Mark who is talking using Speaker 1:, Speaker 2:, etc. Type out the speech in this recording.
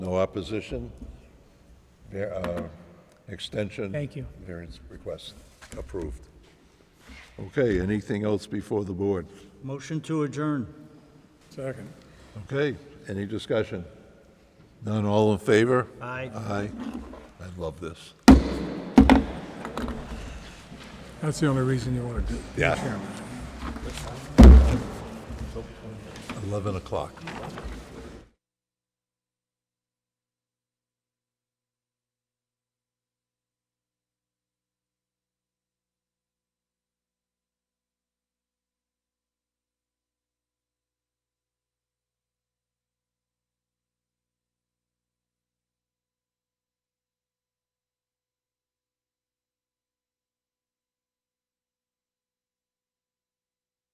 Speaker 1: No opposition? Var- uh, Extension?
Speaker 2: Thank you.
Speaker 1: Variance request approved. Okay, anything else before the board?
Speaker 3: Motion to adjourn.
Speaker 2: Second.
Speaker 1: Okay, any discussion? None, all in favor?
Speaker 3: Aye.
Speaker 1: Aye. I love this.
Speaker 2: That's the only reason you want to do it.
Speaker 1: Yeah. 11 o'clock.